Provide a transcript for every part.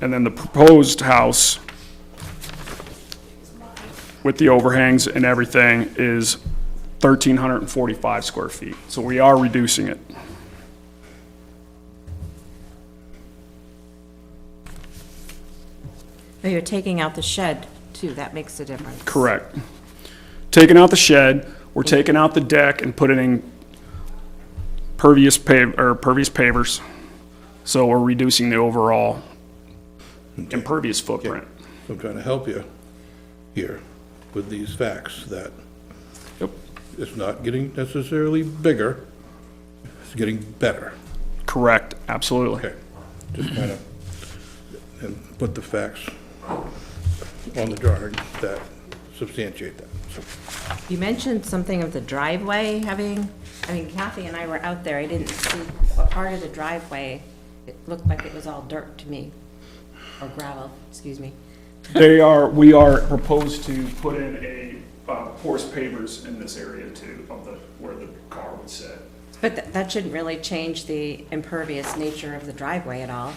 and then the proposed house with the overhangs and everything is 1,345 square feet. So we are reducing it. No, Oh, you're taking out the shed too, that makes a difference. Correct. Taking out the shed, we're taking out the deck and putting in pervious pav, or pervious pavers. So we're reducing the overall impervious footprint. I'm trying to help you here with these facts, that Yep. it's not getting necessarily bigger, it's getting better. Correct, absolutely. Okay, just kind of, and put the facts on the drawing that substantiate that. So, You mentioned something of the driveway having, I mean Kathy and I were out there, I didn't see what part of the driveway, it looked like it was all dirt to me, or gravel, excuse me. They are, we are proposed to put in a, uh, porous pavers in this area too, of the, where the car would sit. But tha- that shouldn't really change the impervious nature of the driveway at all,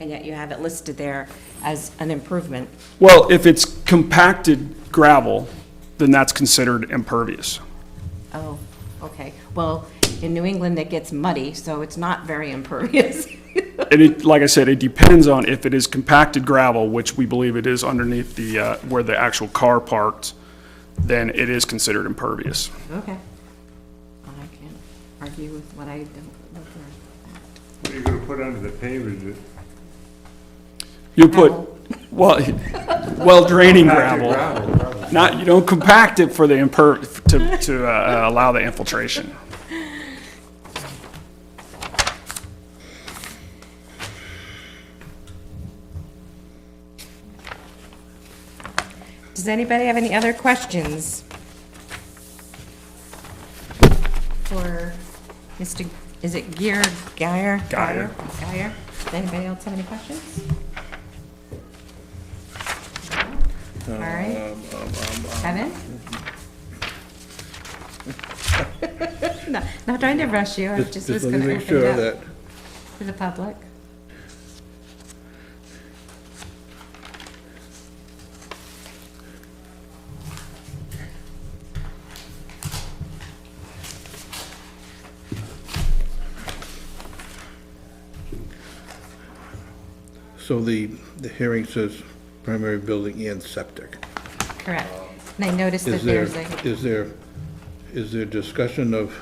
and yet you have it listed there as an improvement. Well, if it's compacted gravel, then that's considered impervious. Oh, okay, well, in New England, it gets muddy, so it's not very impervious. And it, like I said, it depends on if it is compacted gravel, which we believe it is underneath the, uh, where the actual car parked, then it is considered impervious. Okay. Well, I can't argue with what I don't know for. What are you gonna put under the pavers? You put, Gravel. well, well draining Compacted gravel. gravel, Not, you don't compact it for the imper, to, to, uh, allow the infiltration. Does anybody have any other questions? For Mr., is it Gear, Geyer? Guyer. Geyer? Does anybody else have any questions? Uh, All right. um, Kevin? um, No, Not trying to rush you, I just was let gonna me open make sure it up that to the public. So the, the hearing says primary building and septic. Correct. And I noticed that Is there, there's a, is there, is there discussion of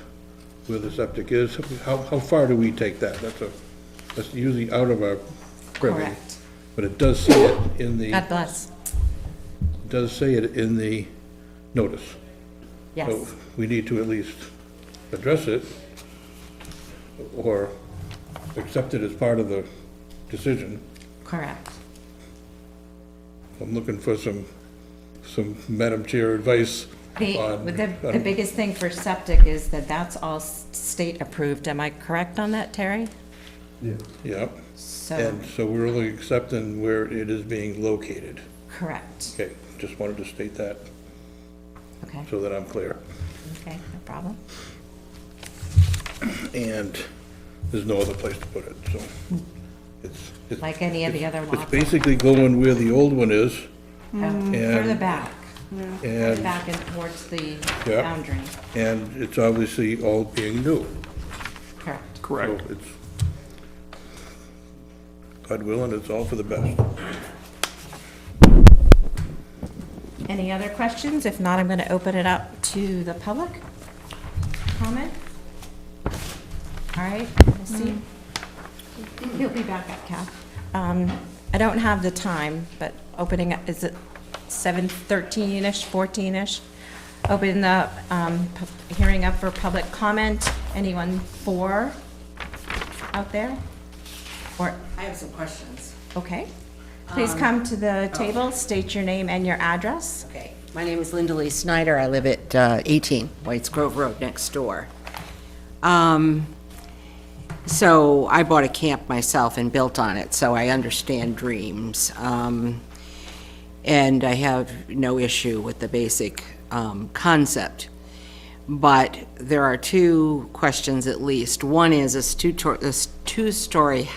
where the septic is? How, how far do we take that? That's a, that's usually out of our privy. Correct. But it does say it in God the, bless, does say it in the notice. So yes. we need to at least address it or accept it as part of the decision. Correct. I'm looking for some, some Madam Chair advice The, on. with the, the on- biggest thing for septic is that that's all s- state-approved. Am I correct on that, Terry? Yep. So, And so we're only accepting where it is being located. correct. Okay, just wanted to state that Okay, so that I'm clear. okay, no problem. And there's no other place to put it, so it's. it's- Like any of the other It's lots. basically going where the old one is Oh, Further and- back, further and, back and towards the Yeah. boundary. and it's obviously all being new. Correct. So Correct. it's, God willing, it's all for the best. Any other questions? If not, I'm going to open it up to the public. Comment? All right, we'll see. He'll be back up, Kath. Um, I don't have the time, but opening up, is it 7:13-ish, 14-ish? Open the um, pu- hearing up for public comment. Anyone for out there? Or, I have some questions. Um, oh. okay. Please come to the table, state your name and your address. Okay. My name is Linda Lee Snyder. I live at uh, 18 Whites Grove Road, next door. Um, So I bought a camp myself and built on it, so I understand dreams. Um, And I have no issue with the basic um, concept. But there are two questions at least. One is, a two-story